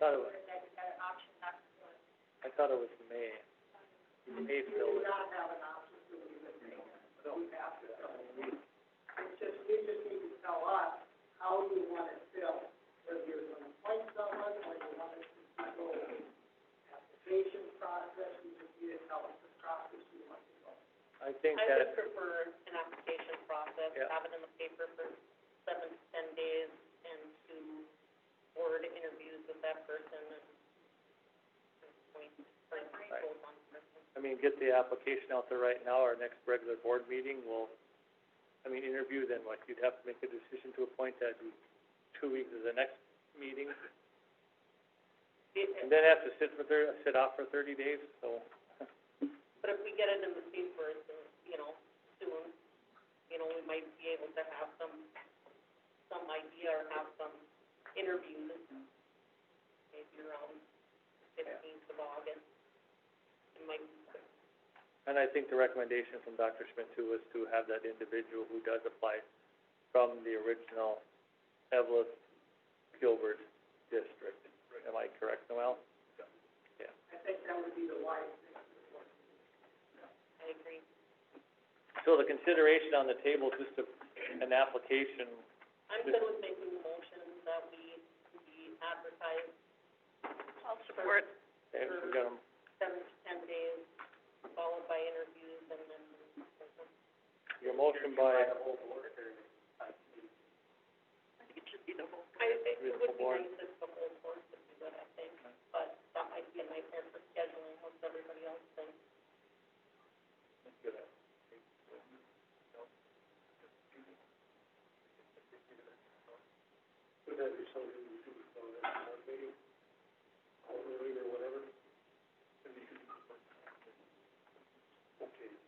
thought it was. I thought it was May. May still was. I think I that, would prefer an application process, Yeah. have it in the paper for seven to ten days, and to board interviews with that person, and and point, like, Right. goals on person. I mean, get the application out there right now, our next regular board meeting will, I mean, interview then, like, you'd have to make a decision to appoint that in two weeks of the next meeting. It- And then have to sit for thir- sit off for thirty days, so, But if we get it in the paper, so, you know, soon, you know, we might be able to have some, some idea or have some interviews, maybe around fifteenth of August. It might be quick. and I think the recommendation from Dr. Schmidt too was to have that individual who does apply from the original Evelyn Gilbert district. Am I correct, Noel? I agree. So the consideration on the table, is just a, an application, I'm good with making the motion that we, we advertise. I'll support. and we got 'em- Seven to ten days, followed by interviews and then. your motion by, I, it would Beautiful be board. nice if the whole board could do that, I think, but that might be a nightmare for scheduling once everybody else thinks.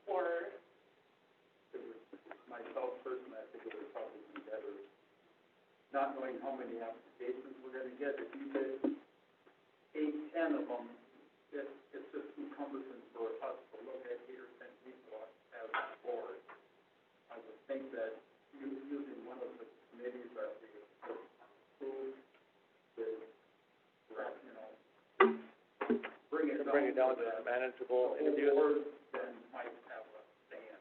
Or, not knowing how many applications we're gonna get, if you get eight, ten of them, it, it's just too cumbersome for us to look at eight or ten people as a board. I would think that you, using one of the committees that we approve, the, you know, bring it down to to bring it down to that a manageable interview. whole board then might have a stand.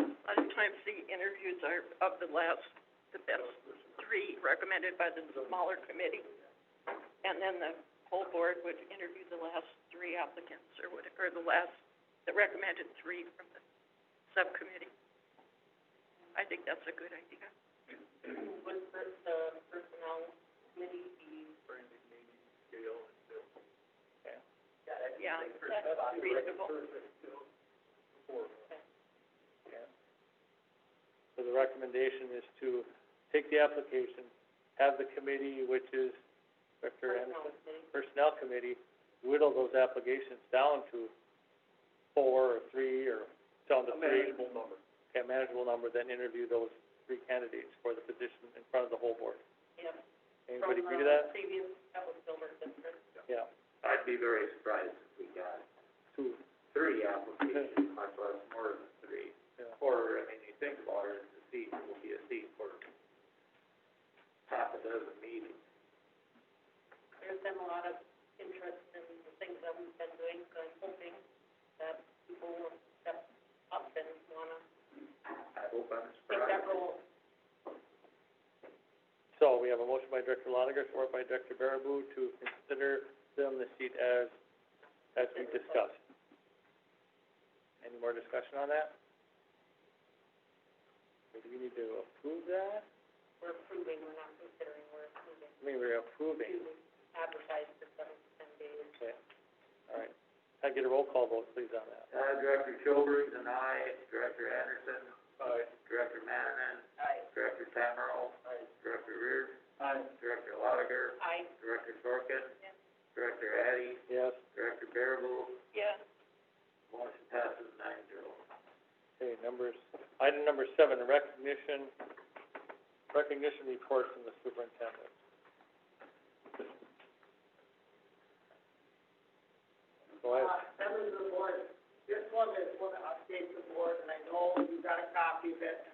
A lot of times the interviews are of the last, the best three recommended by the smaller committee. And then the whole board would interview the last three applicants or what, or the last, the recommended three from the subcommittee. I think that's a good idea. would per- the personnel committee be? Yeah, that's reasonable. So the recommendation is to take the application, have the committee, which is Director and Personnel committee. Personnel Committee, whittle those applications down to four or three or down to three. number. A manageable number, then interview those three candidates for the position in front of the whole board. Yep. Anybody agree From uh, to the that? Previous, that was Gilbert district. Yeah, I'd be very surprised if we got two, three applications, much less more than three. yeah. Or, I mean, you think about it, the seat will be a seat for half a dozen meetings. There's been a lot of interest in the things that we've been doing, so I'm hoping that people will step up and wanna I hope I'm take that surprised. role. So we have a motion by Director Lotiger, support by Director Baraboo to consider them the seat as, as we discussed. Any more discussion on that? Or Do we need to approve that? We're approving, we're not considering, we're approving I mean, we're to approving, advertise for seven to ten days. okay. All right. Can I get a roll call vote, please, on that? Uh, Director Childers and I, Director Anderson. Aye. Director Mannanen. Aye. Director Tamero. Aye. Director Reer. Aye. Director Lotiger. I, Director Sorkin. Director Addy. Yes, Director Baraboo. Yeah, Motion passes nine zero. okay, numbers, item number seven, recognition, recognition report from the superintendent. Go ahead. members of the board, this one is one to update the board, and I know you got a copy of it, and